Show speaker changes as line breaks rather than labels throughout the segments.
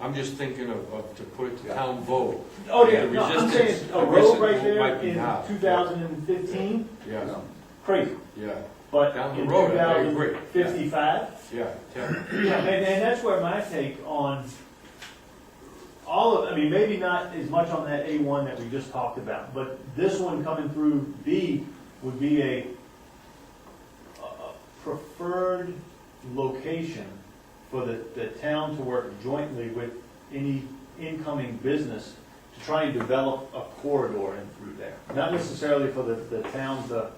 I'm just thinking of, of to put it to town vote,
Oh, yeah,
The
no, I'm
resistance-
saying
the
a road right
resistance
there
might be
in
high.
two thousand and fifteen,
yeah,
crazy,
yeah,
but
Down the
in two
road, I
thousand
agree.
fifty-five?
yeah, yeah.
Yeah, and, and that's where my take on all of, I mean, maybe not as much on that A one that we just talked about, but this one coming through B would be a, a- a preferred location for the, the town to work jointly with any incoming business to try and develop a corridor in through there. Not necessarily for the, the town to,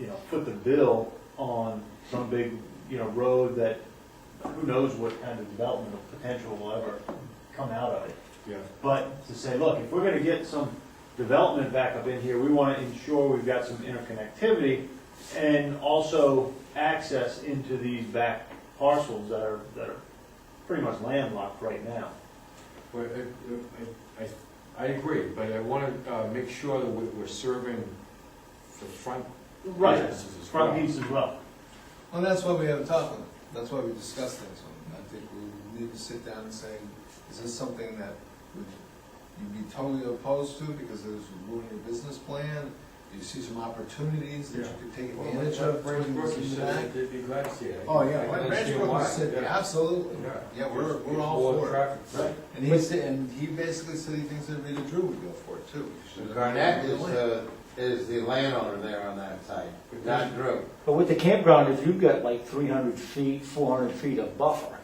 you know, put the bill on some big, you know, road that who knows what kind of development or potential will ever come out of it.
yeah.
But to say, look, if we're gonna get some development back up in here, we wanna ensure we've got some interconnectivity and also access into these back parcels that are, that are pretty much landlocked right now.
But uh, I, I- I, I agree, but I wanna, uh, make sure that we- we're serving the front businesses as well.
Front piece as well.
Well, that's why we have a top on it. That's why we discuss things on it. I think we need to sit down and say, is this something that would you be totally opposed to because it would ruin your business plan? Do you see some opportunities that you
Yeah.
could take
Well,
advantage
like
of?
Brent
when you
Brooks
see
said
that?
that They'd be glad to see it.
Oh,
I
yeah,
can
Brent
understand
Brooks
why,
said,
yeah.
absolutely. Yeah, we're,
It's-
we're
it's
all
more
for it.
traffic, right.
And he said, and he basically said he thinks that Rita Drew would go for it too.
Garnett is the, is the landowner there on that site, not Drew.
But with the campground, if you've got like three hundred feet, four hundred feet of buffer,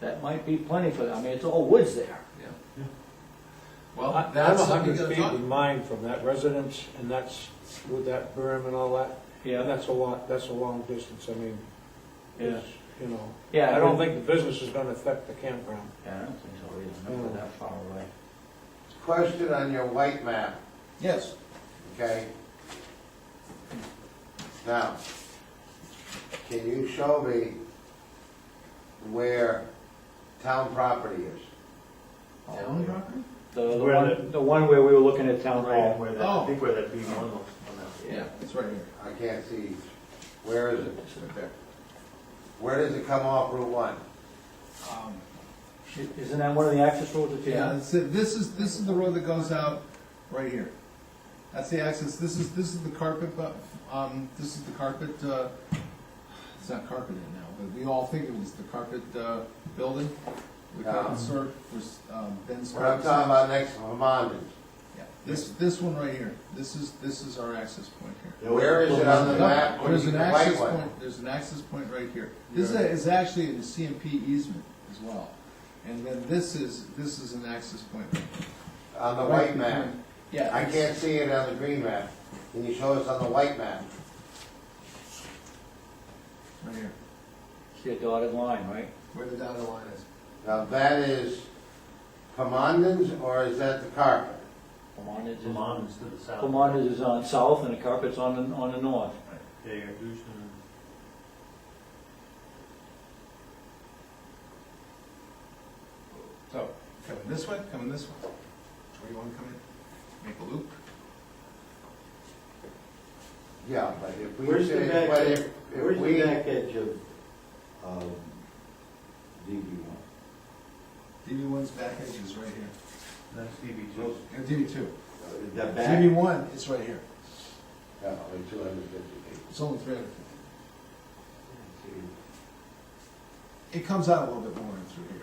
that might be plenty for, I mean, it's all woods there.
Yeah.
Yeah.
I-
Well,
I'm
that's
a
something
hundred
to
feet
talk.
in mine from that residence, and that's with that berm and all that, and that's a lot, that's a long distance, I mean,
Yeah.
it's, you know.
Yeah.
I don't
it-
think the business is gonna affect the campground.
Yeah, I don't think so either,
Oh.
not that far away.
Question on your white map,
Yes.
okay? Now, can you show me where town property is?
Town property?
Oh. The, the
Where
one, the one where we were looking at town
Right,
hall.
where that, I think where that B one looks on that.
Yeah, it's right here.
I can't see, where is it?
It's right there.
Where does it come off Route One?
Um,
I- Isn't that one of the access roads that you
Yeah,
have?
that's it. this is, this is the road that goes out right here. That's the access, this is, this is the carpet, bu- um, this is the carpet, uh, it's not carpeted now, but we all think it was the carpet, uh, building. The
Yeah.
carpet store was, um, Ben's.
What I'm
Carpet
talking
Store.
about next to Vermont.
Yeah, This, this one right here, this is, this is our access point here.
Where is it on the
No,
map? when
There's
you
an
can write
access
one?
point, there's an access point right here. This is, a- is actually a CMP easement as well. And then this is, this is an access point.
On the
Right
white map?
behind- Yeah.
I
it's-
can't see it on the green map. Can you show us on the white map?
Right here,
See a dotted line, right?
where the dotted line is.
Now, that is Commandant's, or is that the carpet?
Commanders is,
Vermont is to the south.
Commanders is on south and the carpet's on the, on the north.
Yeah, you're Houston.
So, coming this way, coming this way. Where you wanna come in? Make a loop.
Yeah, but if we.
Where's the
say-
back-
but if- if
Where's
we-
the back edge of, um, DB one?
DB one's back edge is right here.
That's DB two.
And DB two.
Uh,
The back?
DB one is right here.
Yeah, only two hundred fifty feet.
It's only three hundred fifty. It comes out a little bit more in through here.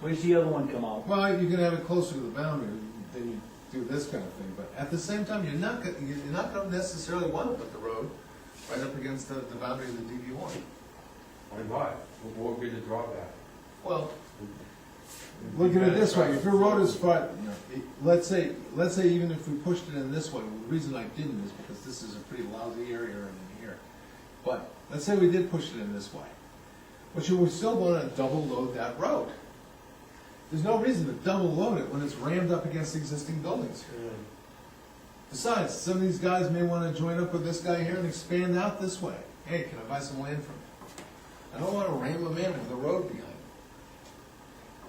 Where's the other one come out?
Well, you can have it closer to the boundary than you do this kind of thing, but at the same time, you're not, gonna- you're not gonna necessarily wanna put the road right up against the, the boundary of the DB one.
Why not? What would be the drawback?
Well, look at it this way, if your road is far, let's say, let's say even if we pushed it in this way, the reason I didn't is because this is a pretty lousy area in here. But, let's say we did push it in this way, but you would still wanna double load that road. There's no reason to double load it when it's rammed up against existing buildings here. Besides, some of these guys may wanna join up with this guy here and expand out this way. Hey, can I buy some land from you? I don't wanna ram them in with a road behind them.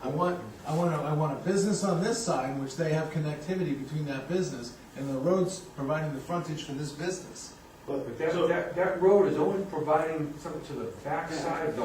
I want, I want a, I want a business on this side, which they have connectivity between that business, and the road's providing the frontage for this business.
But
But that,
So-
that, that road is only providing something to the backside of the